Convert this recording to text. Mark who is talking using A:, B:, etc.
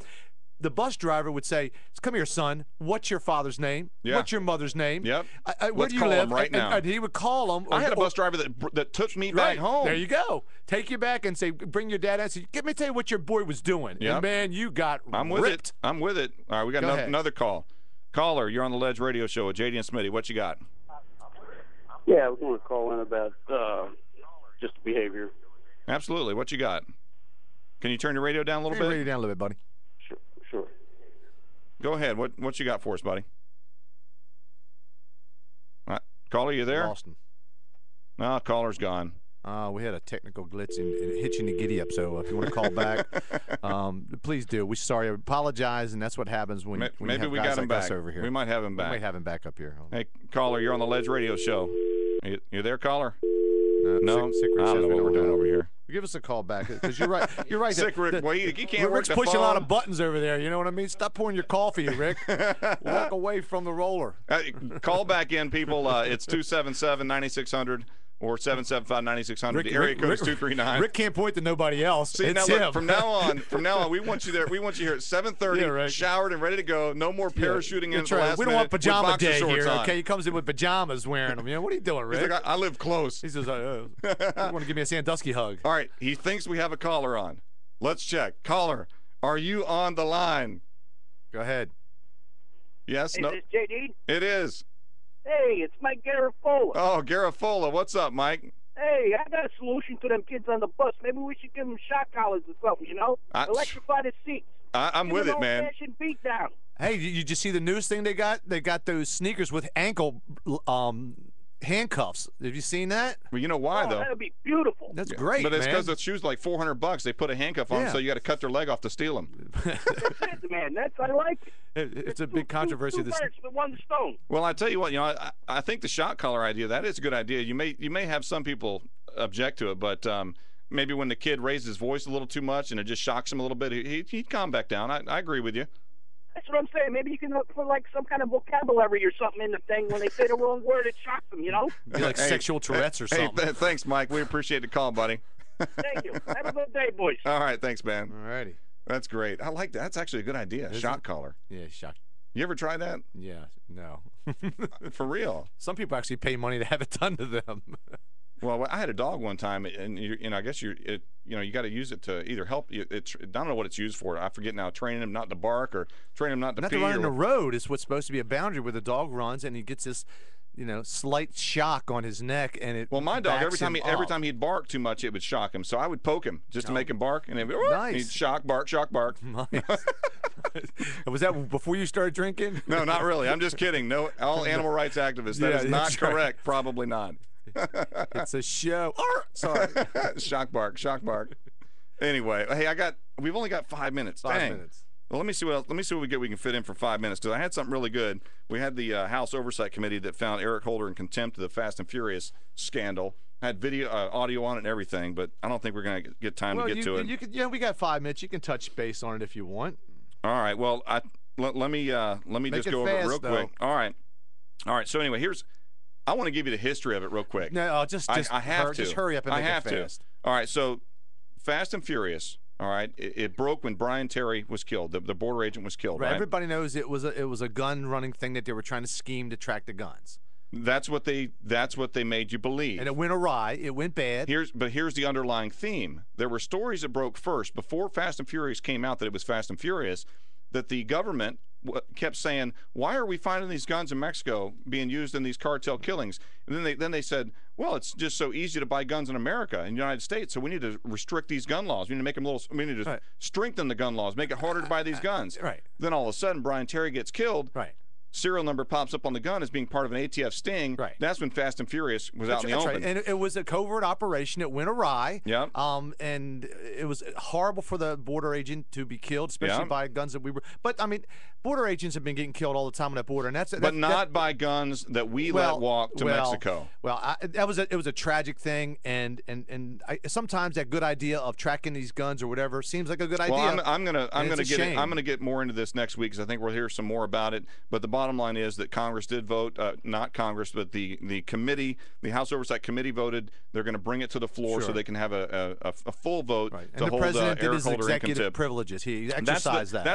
A: the bus driver would say, "Come here, son. What's your father's name?
B: Yeah.
A: What's your mother's name?
B: Yep.
A: I, I, where
B: Let's
A: do you
B: call
A: live?"
B: 'em right
A: And- and-
B: now.
A: and he would call him. Or,
B: I had a
A: or-
B: bus driver that that took me
A: Right
B: back home.
A: There you go. Take you back and say, bring your dad out. Say, Let me tell you what your boy was doing. And
B: Yep.
A: man, you got
B: I'm with
A: ripped.
B: it. I'm with it. All right, we got
A: Go
B: ano-
A: ahead.
B: another call. Caller, you're on the Ledge Radio Show with JD and Smitty. What you got?
C: Yeah, I was going to call in about uh, just behavior.
B: Absolutely. What you got? Can you turn your radio down a little
A: Turn your
B: bit?
A: radio down a little bit, buddy.
C: Sure, sure.
B: Go ahead. What what you got for us, buddy? Uh, caller, you there?
A: Lost him.
B: No, caller's gone.
A: Uh, we had a technical glitch and, and hitching the giddy up. So if you want to call back, um, please do. We sorry, apologize, and that's what happens when,
B: Ma-
A: when you
B: maybe
A: have
B: we
A: guys
B: got him
A: like us
B: back.
A: over here.
B: We might have him
A: We
B: back.
A: may have him back up here.
B: hey, caller, you're on the Ledge Radio Show. You, you there, caller?
A: no,
B: No,
A: Sick- Sick Rick
B: I
A: says
B: don't know
A: we
B: what we're doing
A: have
B: over
A: him.
B: here.
A: Give us a call back because you're right. You're right.
B: Sick
A: The-
B: Rick,
A: the-
B: well, he, he can't
A: Rick's
B: work the
A: pushing a lot
B: phone.
A: of buttons over there. You know what I mean? Stop pouring your coffee, Rick. Walk away from the roller.
B: Uh, call back in, people. Uh, it's 277 9600 or 775 9600. The area code is 239.
A: Rick can't point to nobody else.
B: See,
A: it's
B: now
A: him.
B: look, from now on, from now on, we want you there. We want you here at 7:30,
A: Yeah, right.
B: showered and ready to go. No more
A: Yeah,
B: parachuting in at
A: that's
B: the
A: right.
B: last
A: We don't want
B: minute with
A: pajama
B: boxer
A: day
B: shorts
A: here.
B: on.
A: Okay, he comes in with pajamas, wearing them. You know, what are you doing,
B: He's
A: Rick?
B: like, I, I live close.
A: He says, uh, uh, "You want to give me a Sandusky hug?"
B: All right, he thinks we have a caller on. Let's check. Caller, are you on the line?
A: Go ahead.
B: Yes. No.
C: this JD?
B: It is.
C: Hey, it's Mike Garofolo.
B: Oh, Garafola, what's up, Mike?
C: hey, I got a solution to them kids on the bus. Maybe we should give them shock collars or something, you know?
B: I-
C: Electrify the seats.
B: I, I'm
C: Give
B: with
C: them
B: it, man.
C: old-fashioned beat down.
A: Hey, did you just see the newest thing they got? They got those sneakers with ankle um, handcuffs. Have you seen that?
B: Well, you know why
C: Oh,
B: though?
C: that'd be beautiful.
A: That's great,
B: But it's
A: man.
B: because the shoe's like 400 bucks. They put a handcuff on, 'em,
A: Yeah.
B: so you got to cut their leg off to steal them.
C: That's it, man. That's I like it.
A: It- it's a
C: Two-
A: big controversy.
C: Two, two
A: This
C: birds with one stone.
B: Well, I tell you what, you know, I, I think the shot collar idea that is a good idea. You may you may have some people object to it, but um, maybe when the kid raised his voice a little too much and it just shocks him a little bit, he, he- he'd calm back down. I, I agree with you.
C: That's what I'm saying. Maybe you can look for like some kind of vocabulary or something in the thing when they say the wrong word, it shocks them. You know?
A: be like
B: Hey,
A: sexual Tourette's or
B: Hey,
A: something.
B: th- thanks, Mike. We appreciate the call, buddy.
C: Thank you. Have a good day, boys.
B: All right, thanks, man.
A: Alrighty.
B: That's great. I like that. That's actually a good idea.
A: Isn't
B: shot
A: it?
B: collar.
A: Yeah, shock.
B: You ever try that?
A: Yeah, no.
B: For real?
A: Some people actually pay money to have it done to them.
B: Well, I had a dog one time, and you, you know, I guess you, it, you know, you got to use it to either help. you It's I don't know what it's used for. I forget now. Training him not to bark or training him not to
A: Not
B: pee.
A: to run in
B: or-
A: the road is what's supposed to be a boundary where the dog runs and he gets this, you know, slight shock on his neck and it.
B: well, my dog
A: backs
B: every time he
A: him
B: every
A: up.
B: time he'd bark too much, it would shock him. So I would poke him just to make him bark, and he'd, be, "Whoop,"
A: Oh, Nice.
B: he'd shock, bark, shock, bark.
A: Nice. was that before you started drinking?
B: No, not really. I'm just kidding. No, all animal rights activists. That
A: Yeah,
B: is not
A: that's right.
B: correct. Probably not.
A: It's a show. Arr! Sorry.
B: shock, bark, shock, bark. Anyway, hey, I got. We've only got five minutes.
A: Five
B: Dang.
A: minutes.
B: Well, let me see what else, let me see what we get we can fit in for five minutes because I had something really good. We had the uh, House Oversight Committee that found Eric Holder in contempt of the Fast and Furious scandal. Had video, uh, audio on it and everything, but I don't think we're gonna get time
A: Well,
B: to get
A: you,
B: to it.
A: you could, yeah, we got five minutes. You can touch base on it if you want.
B: All right. Well, I let, let me uh, let me
A: Make
B: just
A: it
B: go over it
A: fast,
B: real
A: though.
B: quick. All right. All right. So anyway, here's I want to give you the history of it real quick.
A: No, I'll just,
B: I-
A: just,
B: I, have
A: hur-
B: to.
A: just hurry up and
B: I
A: make
B: have
A: it
B: to.
A: fast.
B: All right, so Fast and Furious. All right, it, it broke when Brian Terry was killed. The, the border agent was killed.
A: Right,
B: Right.
A: Everybody knows it was a it was a gun running thing that they were trying to scheme to track the guns,
B: That's what they. That's what they made you believe.
A: and it went awry. It went bad.
B: Here's but here's the underlying theme. There were stories that broke first before Fast and Furious came out that it was Fast and Furious that the government w- kept saying, "Why are we finding these guns in Mexico being used in these cartel killings?" And then they then they said, "Well, it's just so easy to buy guns in America in the United States, so we need to restrict these gun laws. We need to make them a little we need to
A: Right.
B: strengthen the gun laws, make it harder to buy these guns."
A: right.
B: Then all of a sudden Brian Terry gets killed.
A: Right.
B: Serial number pops up on the gun as being part of an ATF sting.
A: Right.
B: That's when Fast and Furious was out in the
A: That's
B: open.
A: right. And it, it was a covert operation. It went awry.
B: Yep.
A: Um, and it was horrible for the border agent to be killed, especially
B: Yep.
A: by guns that we were. But I mean, border agents have been getting killed all the time on that border, and that's that-
B: but
A: that-
B: not by guns that we let walk to
A: well,
B: Mexico.
A: Well, I, that was a, it was a tragic thing, and and and I, sometimes that good idea of tracking these guns or whatever seems like a good
B: Well, I'm,
A: idea.
B: I'm gonna I'm
A: it's
B: gonna
A: a
B: get it-
A: shame.
B: I'm gonna get more into this next week because I think we'll hear some more about it. But the bottom line is that Congress did vote, uh, not Congress, but the the committee, the House Oversight Committee voted. They're going to bring it to the floor so
A: Sure.
B: they can have a a, a- a full vote
A: right.
B: to
A: And the
B: hold uh,
A: president did
B: Eric
A: his
B: Holder in
A: executive
B: contempt.
A: privileges. He
B: That's the-
A: exercised that.